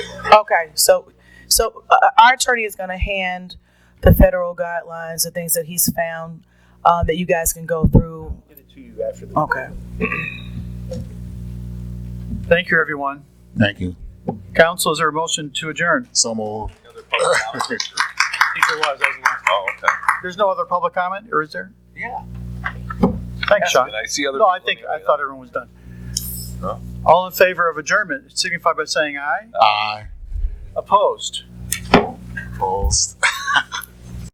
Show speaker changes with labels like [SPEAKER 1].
[SPEAKER 1] Okay, so, so uh, our attorney is gonna hand the federal guidelines, the things that he's found, uh, that you guys can go through.
[SPEAKER 2] Get it to you after the.
[SPEAKER 1] Okay.
[SPEAKER 2] Thank you, everyone.
[SPEAKER 3] Thank you.
[SPEAKER 2] Council, is there a motion to adjourn?
[SPEAKER 3] So moved.
[SPEAKER 2] There was, that was the last.
[SPEAKER 4] Oh, okay.
[SPEAKER 2] There's no other public comment, or is there?
[SPEAKER 4] Yeah.
[SPEAKER 2] Thanks, Sean.
[SPEAKER 4] Did I see other?
[SPEAKER 2] No, I
[SPEAKER 4] people in
[SPEAKER 2] think,
[SPEAKER 4] the
[SPEAKER 2] I
[SPEAKER 4] area?
[SPEAKER 2] thought everyone was done.
[SPEAKER 4] No.
[SPEAKER 2] All in favor of adjournment, signify by saying aye.
[SPEAKER 3] Aye.
[SPEAKER 2] Opposed?
[SPEAKER 3] Opposed.